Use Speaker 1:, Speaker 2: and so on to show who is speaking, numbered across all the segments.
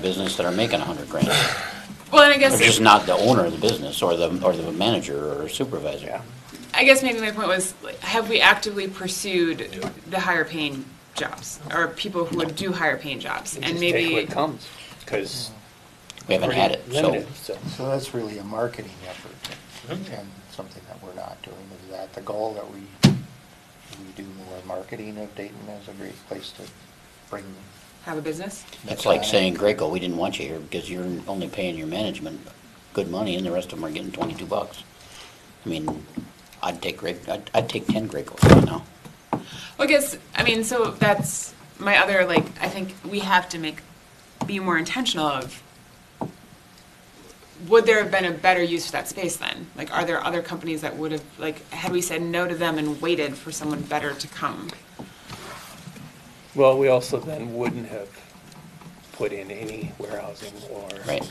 Speaker 1: business that are making a hundred grand.
Speaker 2: Well, and I
Speaker 1: They're just
Speaker 2: guess,
Speaker 1: not the owner of the business or the, or the manager or supervisor.
Speaker 2: I guess maybe my point was, like, have we actively pursued the higher paying jobs? Or people who would do higher paying jobs? And
Speaker 3: Just take
Speaker 2: maybe,
Speaker 3: what comes, because.
Speaker 1: We haven't had it, so.
Speaker 4: So that's really a marketing effort and something that we're not doing. Is that the goal that we, we do more marketing of Dayton as a great place to bring?
Speaker 2: have a business?
Speaker 1: It's like saying, Graco, we didn't want you here because you're only paying your management good money and the rest of them are getting twenty-two bucks. I mean, I'd take Gra, I'd, I'd take ten Gracos right now.
Speaker 2: Well, I guess, I mean, so that's my other, like, I think we have to make, be more intentional of, would there have been a better use for that space then? Like, are there other companies that would have, like, had we said no to them and waited for someone better to come?
Speaker 3: Well, we also then wouldn't have put in any warehousing or.
Speaker 1: Right.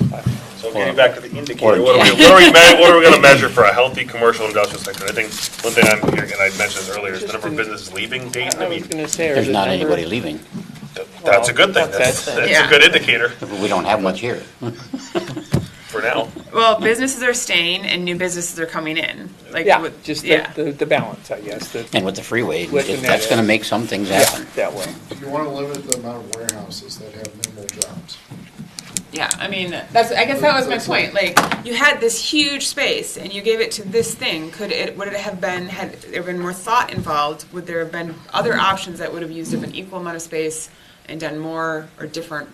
Speaker 3: you know, I-
Speaker 5: So getting back to the
Speaker 1: Or-
Speaker 5: indicator, what are we, what are we, me- what are we gonna measure for a healthy commercial industrial sector? I think one thing I'm hearing, and I mentioned this earlier, is the number of businesses leaving Dayton, I
Speaker 3: I was
Speaker 5: mean,
Speaker 3: gonna say. or
Speaker 1: There's
Speaker 3: the
Speaker 1: not
Speaker 3: number-
Speaker 1: anybody leaving.
Speaker 5: th- that's a good thing, that's,
Speaker 3: Well, that's-
Speaker 5: that's a good indicator
Speaker 1: We don't have much here.
Speaker 5: for now.
Speaker 2: Well, businesses are staying and new businesses are coming in. Like,
Speaker 3: Yeah,
Speaker 2: with-
Speaker 3: just the,
Speaker 2: yeah.
Speaker 3: the, the balance, I guess, the,
Speaker 1: And with the freeway,
Speaker 3: With the
Speaker 1: that's
Speaker 3: net.
Speaker 1: gonna make some things
Speaker 3: yeah,
Speaker 1: happen.
Speaker 3: that way.
Speaker 6: You want to limit the amount of warehouses that have minimal jobs.
Speaker 2: Yeah, I mean, that's, I guess that was my point, like, you had this huge space and you gave it to this thing, could it, would it have been, had there been more thought involved? Would there have been other options that would have used up an equal amount of space and done more or different,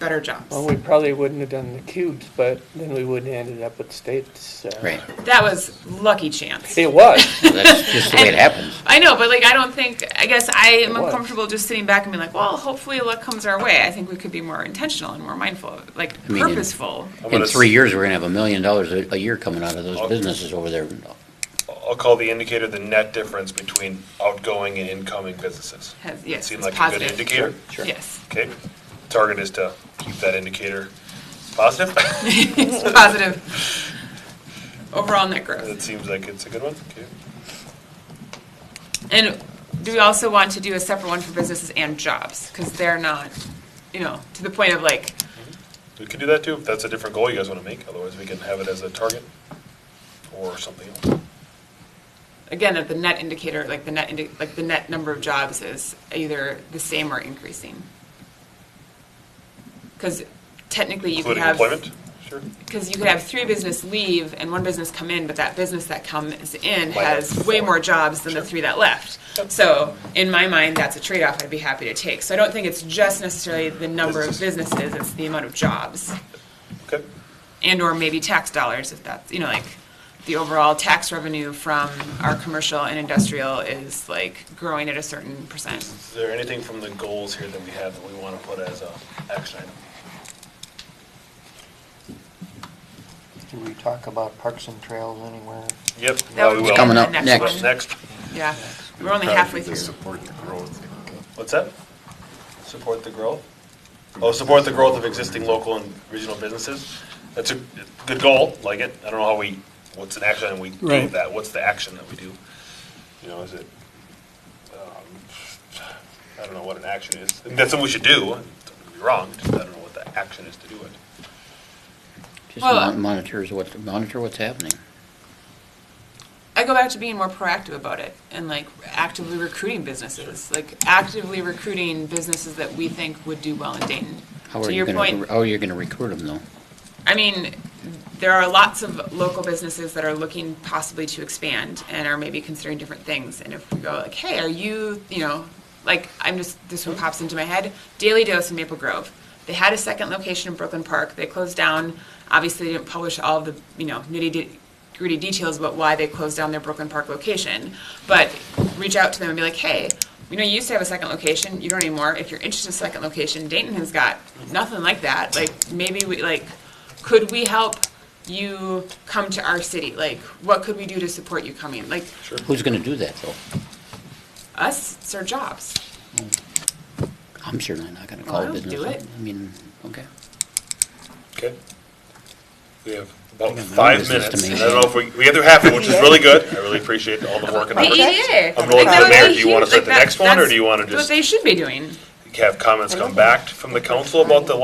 Speaker 2: better
Speaker 3: Well,
Speaker 2: jobs?
Speaker 3: we probably wouldn't have done the cubes, but then we wouldn't have ended up with states. uh,
Speaker 1: Right.
Speaker 2: That was lucky chance.
Speaker 3: It was,
Speaker 1: That's just the way it happens.
Speaker 2: I know, but like, I don't think, I guess I am
Speaker 3: was.
Speaker 2: uncomfortable just sitting back and being like, well, hopefully luck comes our way. I think we could be more intentional and more mindful, like
Speaker 1: I mean, in-
Speaker 2: purposeful.
Speaker 5: I'm
Speaker 1: In
Speaker 5: gonna
Speaker 1: three
Speaker 5: s-
Speaker 1: years, we're gonna have a million dollars a, a year coming out of
Speaker 3: Oh.
Speaker 1: those businesses over there.
Speaker 5: I'll call the indicator the net difference between outgoing and incoming businesses.
Speaker 2: Has, yes,
Speaker 5: Seem
Speaker 2: it's
Speaker 5: like a good
Speaker 2: positive.
Speaker 5: indicator?
Speaker 3: Sure.
Speaker 2: Yes,
Speaker 5: Okay, target is to keep that indicator positive,
Speaker 2: it's positive. Overall net growth.
Speaker 5: it seems like it's a good one, okay.
Speaker 2: And do we also want to do a separate one for businesses and jobs? Because they're not, you know, to the point of like,
Speaker 5: We could do that too, if that's a different goal you guys wanna make, otherwise we can have it as a target or something else.
Speaker 2: again, that the net indicator, like the net, indi- like the net number of jobs is either the same or increasing. Because technically you could
Speaker 5: Including
Speaker 2: have.
Speaker 5: employment, sure.
Speaker 2: Because you could have three business leave and one business come in, but that business that comes in
Speaker 5: Might have
Speaker 2: has way
Speaker 5: four.
Speaker 2: more jobs than the three that left. So, in my mind, that's a trade-off I'd be happy to take. So I don't think it's just necessarily the number of businesses, it's the amount of jobs.
Speaker 5: Okay,
Speaker 2: And/or maybe tax dollars, if that's, you know, like, the overall tax revenue from our commercial and industrial is like growing at a certain percent.
Speaker 5: is there anything from the goals here that we have that we want to put as a action item?
Speaker 4: Do we talk about parks and trails anywhere?
Speaker 5: Yep.
Speaker 2: That
Speaker 5: we
Speaker 2: would
Speaker 5: will.
Speaker 2: be
Speaker 1: Coming up
Speaker 2: the
Speaker 1: next.
Speaker 2: one.
Speaker 5: Next,
Speaker 2: Yeah, we're only halfway through.
Speaker 6: Support the growth.
Speaker 5: what's that? Support the growth? Oh, support the growth of existing local and regional businesses. That's a good goal, like it. I don't know how we, what's an action item we do
Speaker 3: Right.
Speaker 5: with that? What's the action that we do? You know, is it, um, I don't know what an action is. That's something we should do, don't get me wrong, just I don't know what the action is to do it.
Speaker 1: Just
Speaker 2: Well,
Speaker 1: mon- monitors what, monitor what's happening.
Speaker 2: I go back to being more proactive about it and like actively recruiting businesses, like actively recruiting businesses that we think would do well in Dayton.
Speaker 1: How are
Speaker 2: to
Speaker 1: you
Speaker 2: your
Speaker 1: gonna,
Speaker 2: point,
Speaker 1: how are you gonna recruit them though?
Speaker 2: I mean, there are lots of local businesses that are looking possibly to expand and are maybe considering different things. And if we go like, hey, are you, you know, like I'm just this one pops into my head, Daily Dose in Maple Grove. They had a second location in Brooklyn Park. They closed down. Obviously, they didn't publish all the you know nitty de- gritty details about why they closed down their Brooklyn Park location. But reach out to them and be like, hey, you know, you used to have a second location. You don't anymore. If you're interested in a second location, Dayton has got nothing like that. Like maybe we like could we help you come to our city? Like, what could we do to support you coming? Like,
Speaker 1: Who's gonna do that though?
Speaker 2: us, it's our jobs.
Speaker 1: I'm certainly not gonna
Speaker 2: Well,
Speaker 1: call
Speaker 2: Oh, I
Speaker 1: a
Speaker 2: would
Speaker 1: business
Speaker 2: do
Speaker 1: up.
Speaker 2: it.
Speaker 1: I mean, okay.
Speaker 5: Okay. We have about
Speaker 1: We have no
Speaker 5: five
Speaker 1: business to
Speaker 5: minutes. I
Speaker 1: make.
Speaker 5: don't know if we, we have to half it, which is really good. I really appreciate all the work and
Speaker 2: The
Speaker 5: effort.
Speaker 2: EDA.
Speaker 5: I'm going
Speaker 2: Like,
Speaker 5: to
Speaker 2: that
Speaker 5: the
Speaker 2: would
Speaker 5: mayor.
Speaker 2: be
Speaker 5: Do you want
Speaker 2: huge.
Speaker 5: to set
Speaker 2: Like,
Speaker 5: the
Speaker 2: that-
Speaker 5: next one, or
Speaker 2: that's
Speaker 5: do you want to
Speaker 2: What
Speaker 5: just?
Speaker 2: they should be doing.
Speaker 5: have comments come back from the council about the